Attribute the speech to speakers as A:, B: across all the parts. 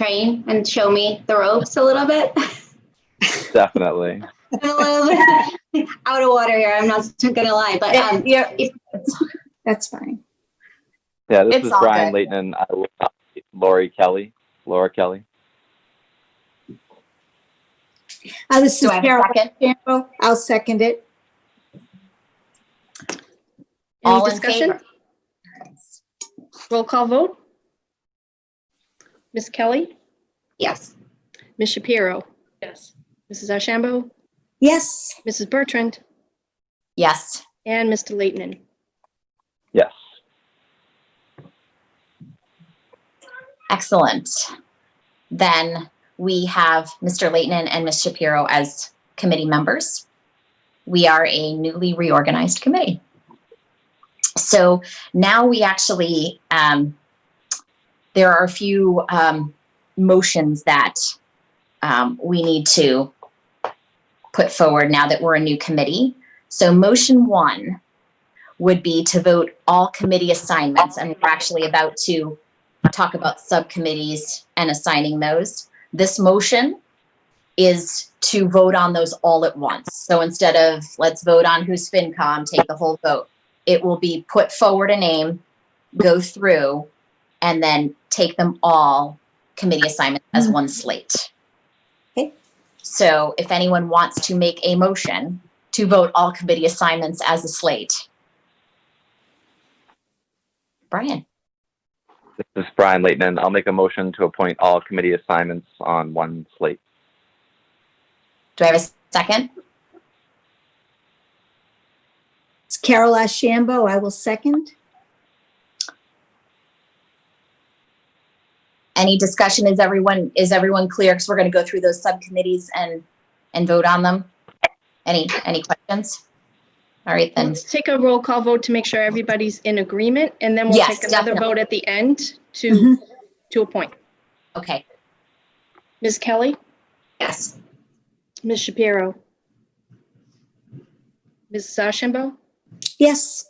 A: train and show me the ropes a little bit.
B: Definitely.
A: I'm a little bit out of water here. I'm not gonna lie, but um,
C: yeah,
A: if-
C: that's fine.
B: Yeah, this
C: It's
B: is
C: all
B: Brian
C: good.
B: Leighton and I will not be Lori Kelly. Laura Kelly.
C: Uh, this
A: do
C: is
A: I have a
C: Carol
A: second?
C: Campbell. I'll second it.
A: All
D: Any
A: in
D: discussion?
A: favor?
D: Roll call vote. Ms. Kelly,
A: Yes.
D: Ms. Shapiro,
E: Yes.
D: Mrs. Ashambo,
C: Yes,
D: Mrs. Bertrand,
F: Yes.
D: and Mr. Leighton.
B: Yes.
F: Excellent. Then we have Mr. Leighton and Ms. Shapiro as committee members. We are a newly reorganized committee. So now we actually, um, there are a few um, motions that um, we need to put forward now that we're a new committee. So motion one would be to vote all committee assignments, and we're actually about to talk about subcommittees and assigning those. This motion is to vote on those all at once. So instead of let's vote on who's FinCom, take the whole vote, it will be put forward a name, go through, and then take them all committee assignments as one slate.
C: Okay.
F: So if anyone wants to make a motion to vote all committee assignments as a slate. Brian?
B: This is Brian Leighton and I'll make a motion to appoint all committee assignments on one slate.
F: Do I have a second?
C: it's Carol Ashambo. I will second.
F: Any discussion? Is everyone, is everyone clear? Because we're going to go through those subcommittees and, and vote on them. Any, any questions? All right, then.
D: Let's take a roll call vote to make sure everybody's in agreement, and then we'll
F: Yes,
D: take another
F: definitely.
D: vote at the end to,
C: Mhm.
D: to appoint.
F: Okay,
D: Ms. Kelly,
A: Yes.
D: Ms. Shapiro, Mrs. Ashambo,
C: Yes,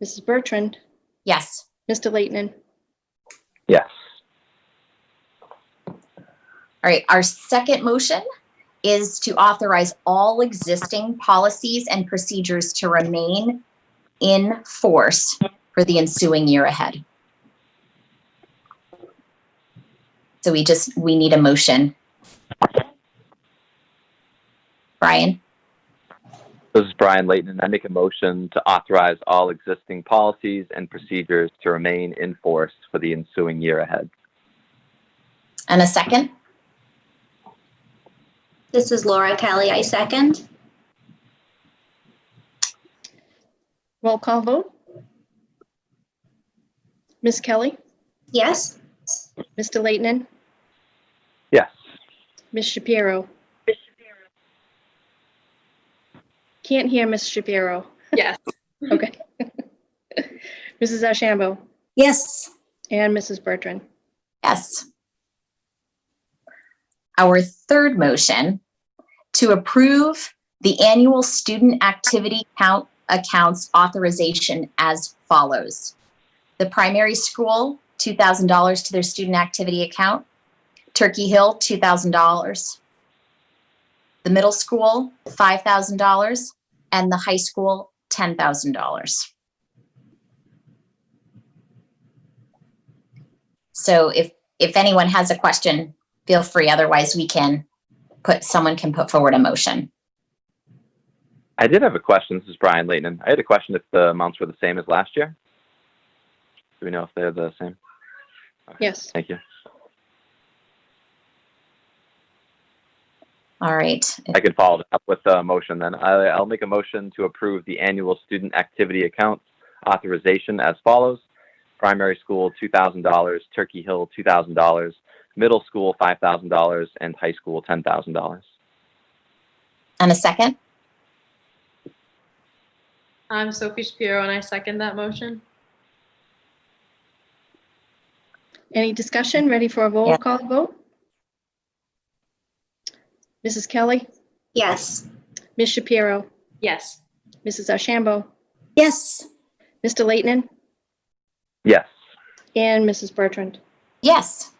D: Mrs. Bertrand,
F: yes.
D: Mr. Leighton.
B: Yes.
F: All right, our second motion is to authorize all existing policies and procedures to remain in force for the ensuing year ahead. So we just, we need a motion. Brian?
B: This is Brian Leighton and I make a motion to authorize all existing policies and procedures to remain in force for the ensuing year ahead.
F: And a second?
A: This is Laura Kelly. I second.
D: Roll call vote. Ms. Kelly,
A: Yes.
D: Mr. Leighton,
B: Yes.
D: Ms. Shapiro. Can't hear Ms. Shapiro.
E: Yes.
D: Okay. Mrs. Ashambo
C: yes,
D: and Mrs. Bertrand.
F: Yes. Our third motion to approve the annual student activity count accounts authorization as follows. The primary school, $2,000 to their student activity account. Turkey Hill, $2,000. The middle school, $5,000, and the high school, $10,000. So if, if anyone has a question, feel free. Otherwise, we can put, someone can put forward a motion.
B: I did have a question. This is Brian Leighton. I had a question if the amounts were the same as last year. Do we know if they're the same?
D: Yes.
B: Thank you.
F: All right.
B: I could follow it up with a motion then. I, I'll make a motion to approve the annual student activity accounts authorization as follows. Primary school, two thousand dollars, Turkey Hill, two thousand dollars, middle school, five thousand dollars, and high school, ten thousand dollars.
F: And a second?
E: I'm Sophie Shapiro and I second that motion.
D: Any discussion? Ready for a roll
F: Yeah.
D: call vote? Mrs. Kelly,
A: Yes.
D: Ms. Shapiro,
E: Yes.
D: Mrs. Ashambo,
C: yes,
D: Mr. Leighton,
B: Yes.
D: and Mrs. Bertrand.
F: Yes.